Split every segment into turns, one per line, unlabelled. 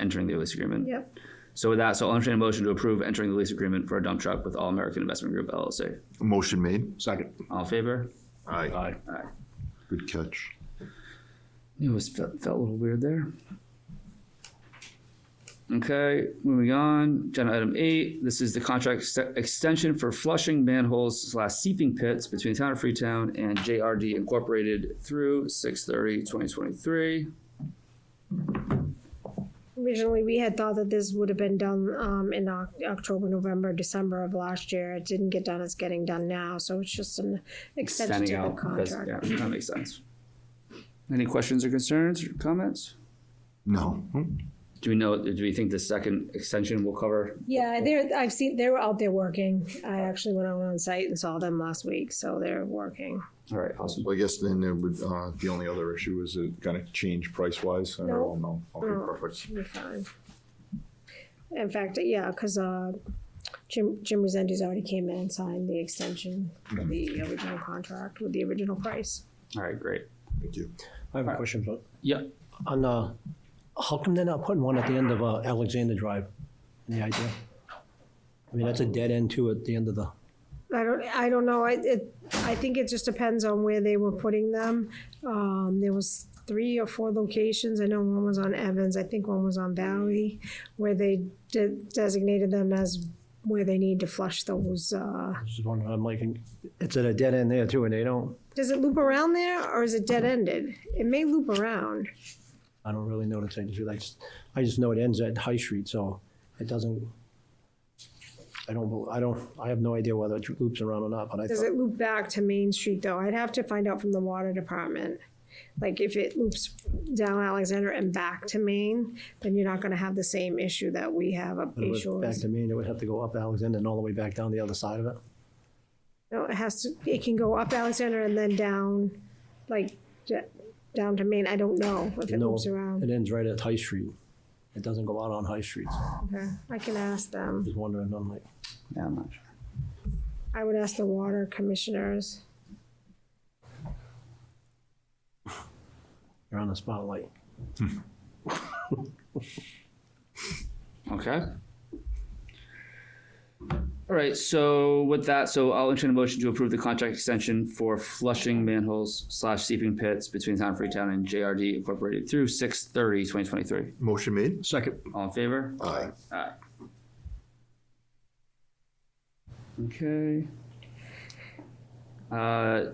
entering the lease agreement.
Yep.
So with that, so I'll entertain a motion to approve entering the lease agreement for a dump truck with All American Investment Group LLC.
Motion made.
Second.
All in favor?
Aye.
Aye.
Good catch.
It was felt, felt a little weird there. Okay, moving on. Agenda item eight. This is the contract ex- extension for flushing manholes slash seeping pits between the town of Freetown and JRD Incorporated through 6/30/2023.
Originally, we had thought that this would have been done um, in Oc- October, November, December of last year. It didn't get done. It's getting done now, so it's just an extension
Standing
to the
out. because-
contract.
Yeah, that makes sense. Any questions or concerns or comments?
No.
Do we know, do we think the second extension will cover?
Yeah, they're, I've seen, they were out there working. I actually went out on site and saw them last week, so they're working.
All right, awesome.
Well, I guess then it would, uh, the only other issue is it gonna change price wise?
No.
No.
No.
Okay, perfect.
We're fine. In fact, yeah, because uh, Jim, Jim Resendiz already came in and signed the extension of the original contract with the original price.
All right, great.
Thank you.
I have a question, but
Yeah,
on, uh, how come they're not putting one at the end of uh, Alexander Drive? Any idea? I mean, that's a dead end too at the end of the,
I don't, I don't know, I, it, I think it just depends on where they were putting them. Um, there was three or four locations, I know one was on Evans, I think one was on Valley, where they de- designated them as where they need to flush those, uh,
this is one I'm like, it's at a dead end there too and they don't,
does it loop around there or is it dead-ended? It may loop around.
I don't really know the thing. I just, I just know it ends at High Street, so it doesn't, I don't, bel- I don't, I have no idea whether it loops around or not, but I
Does
thought,
it loop back to Main Street though? I'd have to find out from the water department. Like if it loops down Alexander and back to Main, then you're not gonna have the same issue that we have up
but it
Bay
was back
Shores.
to me and it would have to go up Alexander and all the way back down the other side of it.
No, it has to, it can go up Alexander and then down, like, d- down to Main. I don't know if it
No,
moves around.
It ends right at High Street. It doesn't go out on High Street. So I
Okay, I can ask them.
was wondering, I'm like,
yeah, I'm not sure.
I would ask the water commissioners.
you're on the spotlight.
Okay. All right, so with that, so I'll entertain a motion to approve the contract extension for flushing manholes slash seeping pits between Town of Freetown and JRD Incorporated through 2023.
Motion made.
Second.
All in favor?
Aye.
Aye. Okay. Uh,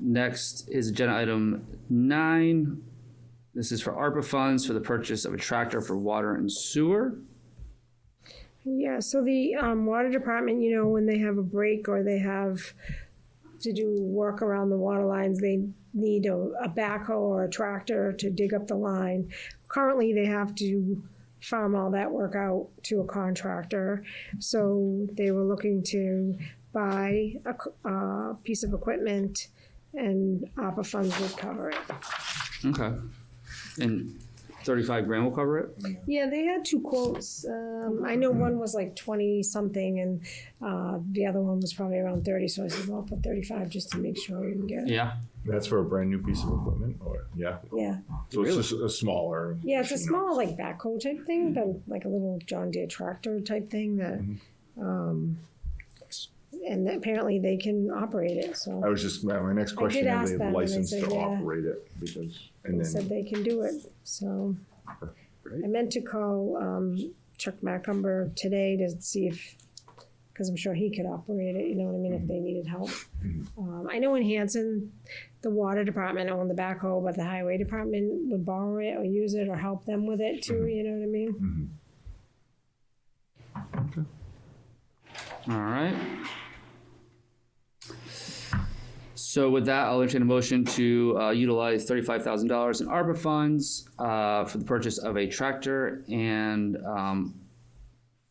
next is agenda item nine. This is for ARPA funds for the purchase of a tractor for water and sewer.
Yeah, so the um, water department, you know, when they have a break or they have to do work around the water lines, they need a, a backhoe or a tractor to dig up the line. Currently, they have to farm all that work out to a contractor. So they were looking to buy a c- uh, piece of equipment and ARPA funds would cover it.
Okay. And thirty-five grand will cover it?
Yeah, they had two quotes. Um, I know one was like twenty something, and uh, the other one was probably around thirty. So I said, "Well, I'll put thirty-five just to make sure we can get it."
Yeah.
That's for a brand new piece of equipment or, yeah.
Yeah,
So it's just a smaller.
yeah, it's a small like backhoe type thing, but like a little John Deere tractor type thing that.
Mm-hmm.
Um, and apparently they can operate it, so
I was just, my my next question,
did
is
ask them,
they have
and they
license
said,
to
yeah.
operate it because, and
they said
then,
they can do it. So
Great.
I meant to call um, Chuck Macumber today to see if, because I'm sure he could operate it, you know what I mean, if they needed help.
Mm-hmm.
Um, I know in Hanson, the water department owned the backhoe, but the highway department would borrow it or use it or help them with it too,
Mm-hmm.
you know what I mean?
All right. So with that, I'll entertain a motion to uh, utilize thirty-five thousand dollars in ARPA funds uh, for the purchase of a tractor and, um,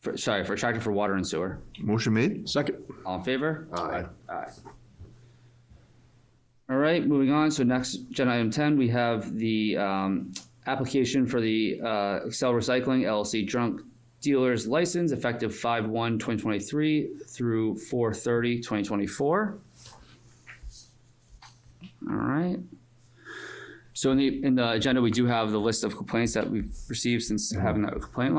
for, sorry, for a tractor for water and sewer.
motion made.
Second.
All in favor?
Aye.
Aye. All right, moving on. So next, agenda item ten, we have the um, application for the uh, Excel Recycling LLC drunk dealer's license effective five one 2023 through 4/30, 2024. All right. So in the, in the agenda, we do have the list of complaints that we've received since having that complaint